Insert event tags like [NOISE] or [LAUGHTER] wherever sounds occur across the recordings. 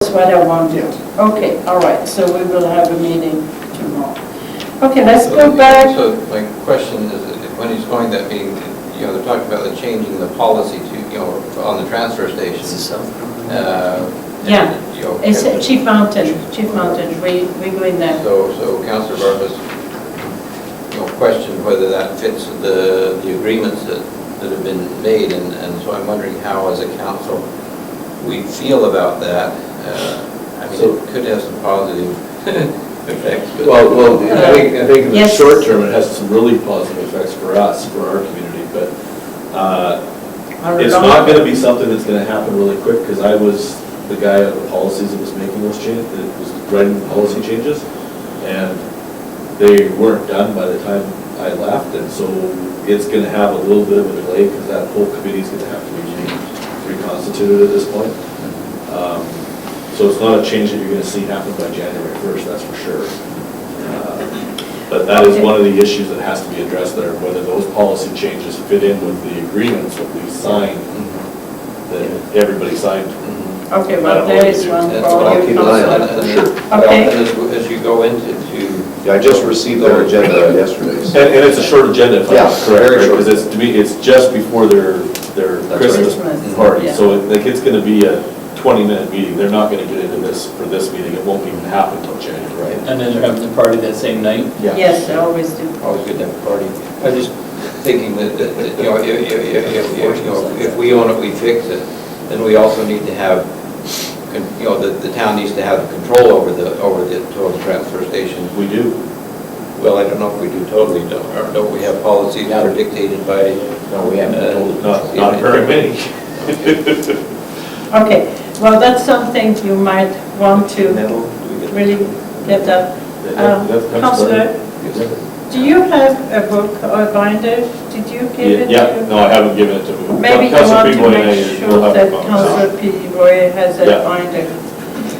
what I wanted. Okay, all right, so we will have a meeting tomorrow. Okay, let's go back. So my question is, that when he's going to that meeting, you know, they're talking about the changing the policy to, you know, on the transfer stations. uh, and, Yeah. you know, It's Chief Mountain, Chief Mountain, we, we go in there. So, so Counselor Barfus, you know, questioned whether that fits the, the agreements that, that have been made, and, and so I'm wondering how, as a council, we feel about that. Uh, I mean, it could have some positive [LAUGHS] effects, but... Mm-hmm. Well, well, I think, I think in the Yes. short term, it has some really positive effects for us, for our community, but uh, Our it's long- not gonna be something that's gonna happen really quick, because I was the guy of the policies that was making those changes, that was writing the policy changes, and they weren't done by the time I left, and so it's gonna have a little bit of a delay, because that whole committee's gonna have to be changed, reconstituted at this point. Um, So it's not a change that you're gonna see happen by January first, that's for sure. Uh, But that is one of the issues that has to be addressed there, whether those policy changes fit in with the agreements that we signed, that everybody signed. Mm-hmm. Okay, well, there is one That's for all. you, keep an eye on Counselor. it. for sure. Oh, Okay. And as, as you go into, to... Yeah, I just received their agenda yesterday. And, so- and it's a short agenda, if I'm Yeah, correct, very short. because it's, to me, it's just before their, their That's right. Christmas Christmas, party. yeah. So it- like, it's gonna be a twenty-minute meeting, they're not gonna get into this for this meeting, it won't even happen till January. And then they're having the party that same night? Yes, I always do. Always good to have a party. I was just thinking that, that, that, you know, if, if, if- if, you know, if we own it, we fix it, then we also need to have, con- you know, the, the town needs to have control over the, over the total transfer station. We do. Well, I don't know if we do totally, don't, or don't we have policies that are dictated by? uh, No, we haven't totally. Not, not very [LAUGHS] many. Okay, well, that's something you might want to Metal, do we get- really get that. Uh, That- that- that comes Counselor, later. do you have a book or binder? Did you give it to? Yeah, no, I haven't given it to him. Maybe you Council want people to and I make will sure have a that conversation. Council P. Roy has a Yeah. binder.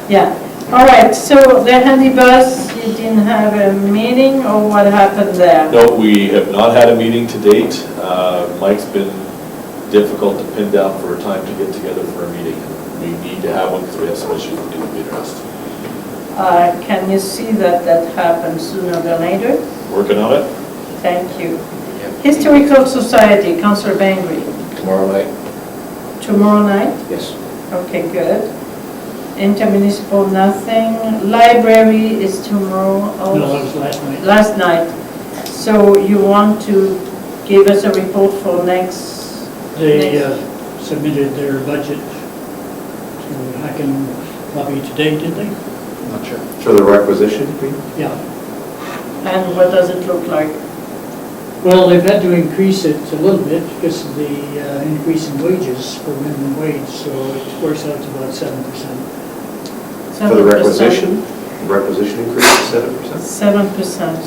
Yeah, all right, so the handy bus, you didn't have a meeting or what happened there? No, we have not had a meeting to date. Uh, Mike's been difficult to pin down for a time to get together for a meeting. We need to have one because we have some issues that need to be addressed. Uh, Can you see that that happens sooner than later? Working on it? Thank you. Historical Society, Council Bangry, Tomorrow night? tomorrow night? Yes. Okay, good. Intermunicipal, nothing. Library is tomorrow also. No, it was last night. last night. So you want to give us a report for next? They next- uh, submitted their budget to Hacken Lobby today, did they? Not sure. For the requisition, you mean? Yeah. And what does it look like? Well, they've had to increase it a little bit because of the uh, increase in wages for minimum wage, so it works out to about seven percent. For the requisition? Requisition increase of seven percent? Seven percent,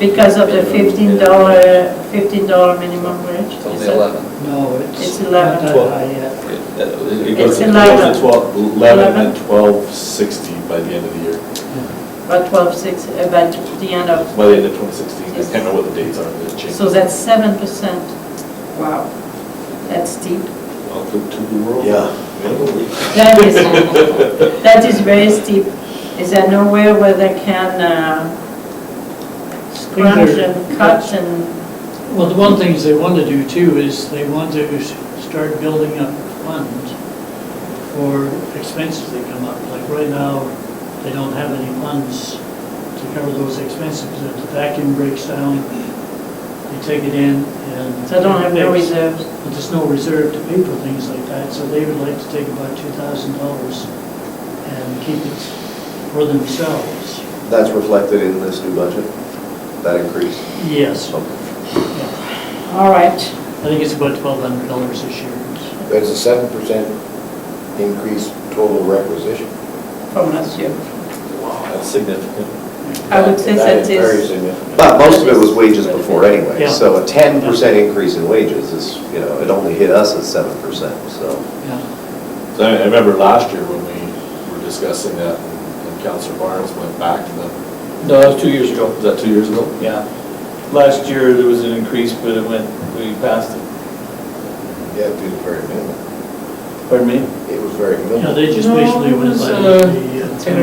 because of the fifteen dollar, fifteen dollar minimum wage. It's only is it? 11. No, it's It's not 11. that Well- high yet. It- that- It it goes goes- It's to- eleven. It goes to 12, 11 and Eleven. 1260 by the end of the year, About twelve six, about the end of, by the end of 2016. I can't remember what the dates are, but it changed. so that's seven percent. Wow, that's steep. Welcome to the world. Yeah. That [LAUGHS] is, [LAUGHS] that is very steep. Is there nowhere where they can uh, scrunch and cut and, Well, the one thing they want to do too is they want to s- start building up funds for expenses that come up. Like right now, they don't have any funds to cover those expenses. If the vacuum breaks down, they take it in and. so don't have no fix. reserves? But There's no reserve to pay for things like that, so they would like to take about two thousand dollars and keep it for themselves. That's reflected in this new budget, that increase? Yes, yeah. All right, I think it's about twelve hundred dollars this year. That's a seven percent increase total requisition. from last year. Wow, that's significant. I would say that Very is, significant. But most of it was wages before anyway, Yeah. so a ten percent increase in wages is, you know, it only hit us at seven percent, so. Yeah, So I I remember last year when we were discussing that, and Counselor Barnes went back to them. No, that was two years ago. Was that two years ago? Yeah. Last year, there was an increase, but it went, we passed it. Yeah, it'd be the very minimum. Pardon me? it was very minimal. Yeah, they just No, basically it went was, by uh, the. uh, ten or